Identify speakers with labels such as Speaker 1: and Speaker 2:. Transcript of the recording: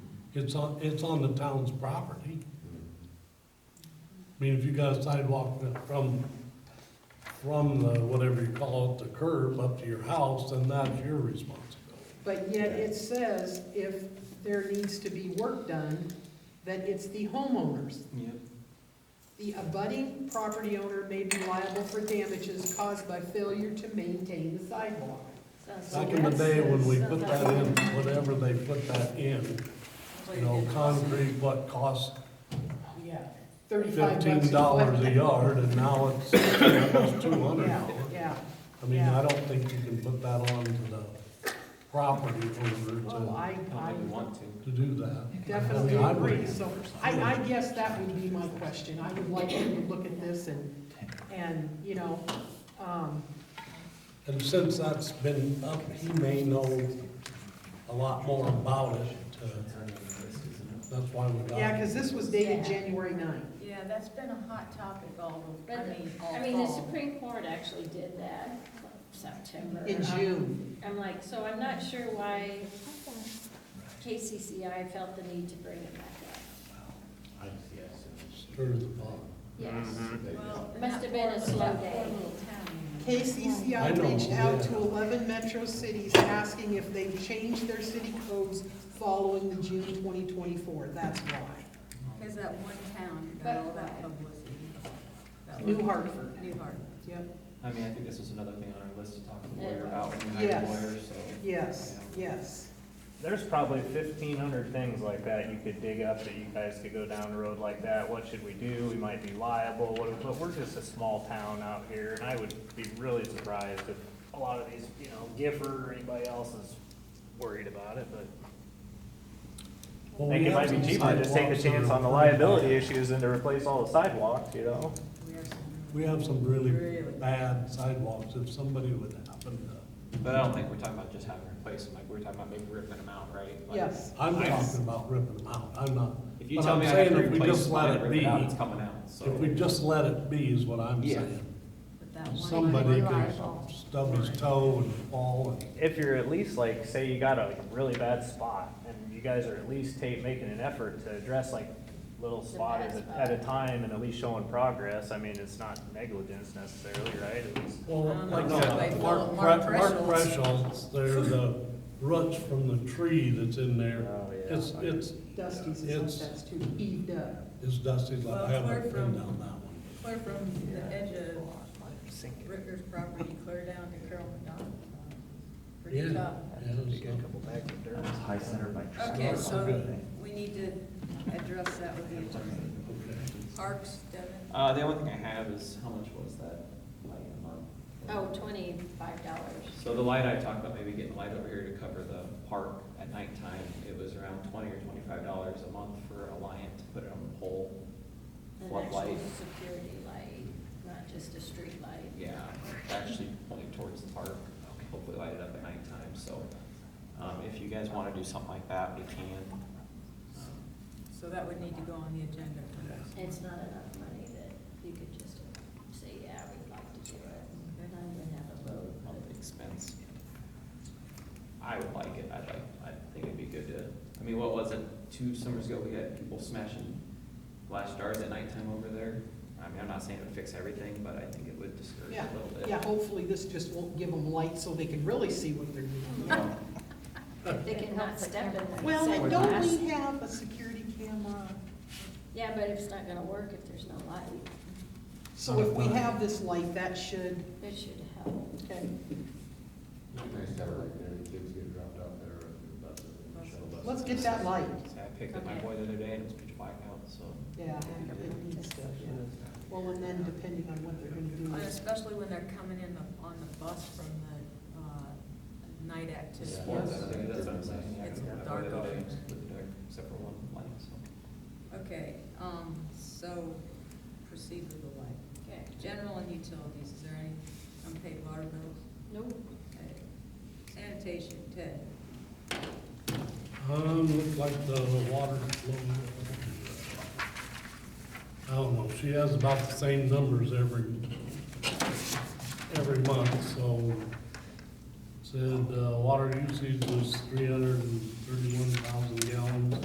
Speaker 1: It's on, it's on the town's property. I mean, if you got a sidewalk that from, from the, whatever you call it, the curb up to your house, then that's your responsibility.
Speaker 2: But yet it says if there needs to be work done, that it's the homeowners.
Speaker 3: Yep.
Speaker 2: The abutting property owner may be liable for damages caused by failure to maintain the sidewalk.
Speaker 1: Back in the day when we put that in, whatever they put that in, you know, concrete, what cost
Speaker 2: Yeah. Thirty-five bucks. a
Speaker 1: fifteen dollars a
Speaker 2: foot.
Speaker 1: yard, and now it's two hundred
Speaker 2: Yeah,
Speaker 1: dollars.
Speaker 2: yeah.
Speaker 1: I mean,
Speaker 2: Yeah.
Speaker 1: I don't think you can put that on to the property
Speaker 2: Well,
Speaker 1: owner
Speaker 2: I,
Speaker 3: I
Speaker 2: I
Speaker 3: don't think we want to.
Speaker 1: to, to do that.
Speaker 2: definitely
Speaker 1: I would.
Speaker 2: agree. So I, I guess that would be my question. I would like you to look at this and, and, you know, um,
Speaker 1: And since that's been up, he may know a lot more about it. uh, That's why we got.
Speaker 2: yeah, because this was dated January ninth.
Speaker 4: Yeah, that's been a hot topic all
Speaker 5: But,
Speaker 4: over, I mean, all
Speaker 5: I mean, the
Speaker 4: fall.
Speaker 5: Supreme Court actually did that September. Um,
Speaker 2: In June.
Speaker 5: I'm like, so I'm not sure why KCCI felt the need to bring it back up.
Speaker 1: Stir the pot.
Speaker 5: Yes,
Speaker 4: Mm-hmm. Well,
Speaker 5: Must have been a
Speaker 4: that
Speaker 5: slow
Speaker 4: poor little
Speaker 5: day.
Speaker 4: town.
Speaker 1: I
Speaker 2: KCCI
Speaker 1: know,
Speaker 2: reached out to
Speaker 1: yeah.
Speaker 2: eleven metro cities asking if they've changed their city codes following the June twenty twenty-four, that's why.
Speaker 4: There's that one town that got all that publicity. That
Speaker 2: New
Speaker 4: one-
Speaker 2: Hartford,
Speaker 4: New Hartford.
Speaker 2: yep,
Speaker 3: I mean, I think this was another thing on our list to talk to the
Speaker 5: Yeah.
Speaker 3: lawyer about when we hired a
Speaker 2: Yes.
Speaker 3: lawyer, so.
Speaker 2: yes, yes.
Speaker 6: There's probably fifteen hundred things like that you could dig up that you guys could go down the road like that. What should we do? We might be liable, what, but we're just a small town out here, and I would be really surprised if a lot of these, you know, Gifford or anybody else is worried about it, but I
Speaker 1: Well, we
Speaker 6: think it
Speaker 1: have
Speaker 6: might be
Speaker 1: some
Speaker 6: cheaper to just take a
Speaker 1: sidewalks that
Speaker 6: chance
Speaker 1: are
Speaker 6: on the
Speaker 1: pretty bad.
Speaker 6: liability issues than to replace all the sidewalks, you know?
Speaker 4: We have some-
Speaker 1: We have some really
Speaker 4: Really.
Speaker 1: bad sidewalks. If somebody would happen to,
Speaker 3: But I don't think we're talking about just having to replace them, like, we're talking about maybe ripping them out, right? Like,
Speaker 2: Yes.
Speaker 1: I'm
Speaker 3: I-
Speaker 1: talking about ripping them out. I'm not.
Speaker 3: If you
Speaker 1: but
Speaker 3: tell
Speaker 1: I'm
Speaker 3: me I
Speaker 1: saying
Speaker 3: have to
Speaker 1: if we
Speaker 3: replace
Speaker 1: just
Speaker 3: mine
Speaker 1: let
Speaker 3: and
Speaker 1: it
Speaker 3: rip it out,
Speaker 1: be,
Speaker 3: it's coming out, so.
Speaker 1: If we just let it be is what I'm
Speaker 3: Yeah.
Speaker 1: saying.
Speaker 4: but that one-
Speaker 1: Somebody could
Speaker 4: Reliable.
Speaker 1: stub his toe and fall and.
Speaker 6: if you're at least like, say you got a really bad spot, and you guys are at least take, making an effort to address like little spot
Speaker 5: bad
Speaker 6: at a,
Speaker 5: spot.
Speaker 6: at a time and at least showing progress, I mean, it's not negligence necessarily, right? At least-
Speaker 1: Well,
Speaker 4: Um,
Speaker 1: like
Speaker 4: no,
Speaker 1: that,
Speaker 4: like
Speaker 1: Mark,
Speaker 4: Mark
Speaker 1: Pre- Mark
Speaker 4: Threshold's.
Speaker 1: Threshold's, they're the roots from the tree that's in there.
Speaker 6: Oh, yeah.
Speaker 1: It's, it's,
Speaker 2: Dusty's is
Speaker 1: It's-
Speaker 2: like that's too heaved up.
Speaker 1: it's dusty, like
Speaker 4: Well,
Speaker 1: I haven't
Speaker 4: clear
Speaker 1: been
Speaker 4: from-
Speaker 1: down that
Speaker 4: Clear from the edge of Ricker's property, clear down to Carol McDonald. Pretty
Speaker 1: Yeah.
Speaker 4: tough.
Speaker 1: one. Yeah, so-
Speaker 3: High center by.
Speaker 4: Okay, so
Speaker 1: Okay.
Speaker 4: we need to address that with the attorney. Parks, Devin?
Speaker 3: Uh, the only thing I have is, how much was that light a month?
Speaker 5: oh, twenty-five dollars.
Speaker 3: So the light I talked about, maybe getting light over here to cover the park at nighttime, it was around twenty or twenty-five dollars a month for a lion to put it on the pole.
Speaker 5: An actual
Speaker 3: Floodlight,
Speaker 5: security light, not just a street light.
Speaker 3: yeah, actually pointing towards the park, hopefully light it up at nighttime, so, um, if you guys wanna do something like that, we can. Um,
Speaker 4: So that would need to go on the agenda for next.
Speaker 5: It's not enough money that you could just say, yeah, we'd like to do it, and not even have a vote. but-
Speaker 3: Monthly expense. I would like it, I'd like, I think it'd be good to, I mean, what was it, two summers ago, we had people smashing glass jars at nighttime over there? I mean, I'm not saying it would fix everything, but I think it would discourage
Speaker 2: Yeah,
Speaker 3: a little bit.
Speaker 2: yeah, hopefully this just won't give them light so they can really see what they're doing.
Speaker 3: Yeah.
Speaker 5: They cannot step in the
Speaker 2: Uh, Well,
Speaker 5: same
Speaker 2: and don't
Speaker 5: class.
Speaker 2: we have a security camera?
Speaker 5: Yeah, but it's not gonna work if there's no light.
Speaker 2: So if we have this light, that should,
Speaker 5: It should help.
Speaker 2: okay,
Speaker 7: It'd be nice to have it right there, the kids get dropped off there, and the bus, and the shuttle bus.
Speaker 2: let's get that light.
Speaker 3: I picked up my boy the other day and it was pitch black out, so.
Speaker 2: Yeah, it needs to, yeah. Well, and then depending on what they're
Speaker 4: And
Speaker 2: gonna do.
Speaker 4: Especially when they're coming in the- on the bus from the, uh, night
Speaker 3: to
Speaker 4: activity.
Speaker 3: support that, I think that's what I'm saying, yeah, I
Speaker 4: It's
Speaker 3: picked up my boy
Speaker 4: dark
Speaker 3: the other day and
Speaker 4: out.
Speaker 3: it was completely dark, except for one light, so.
Speaker 4: Okay, um, so proceed with the light.
Speaker 5: Okay.
Speaker 4: General and utilities, is there any unpaid water bills?
Speaker 5: Nope.
Speaker 4: Okay. Sanitation, Ted?
Speaker 1: Um, looked like the water flowed. I don't know, she has about the same numbers every, every month, so. Said, uh, water usage was three hundred and thirty-one thousand gallons.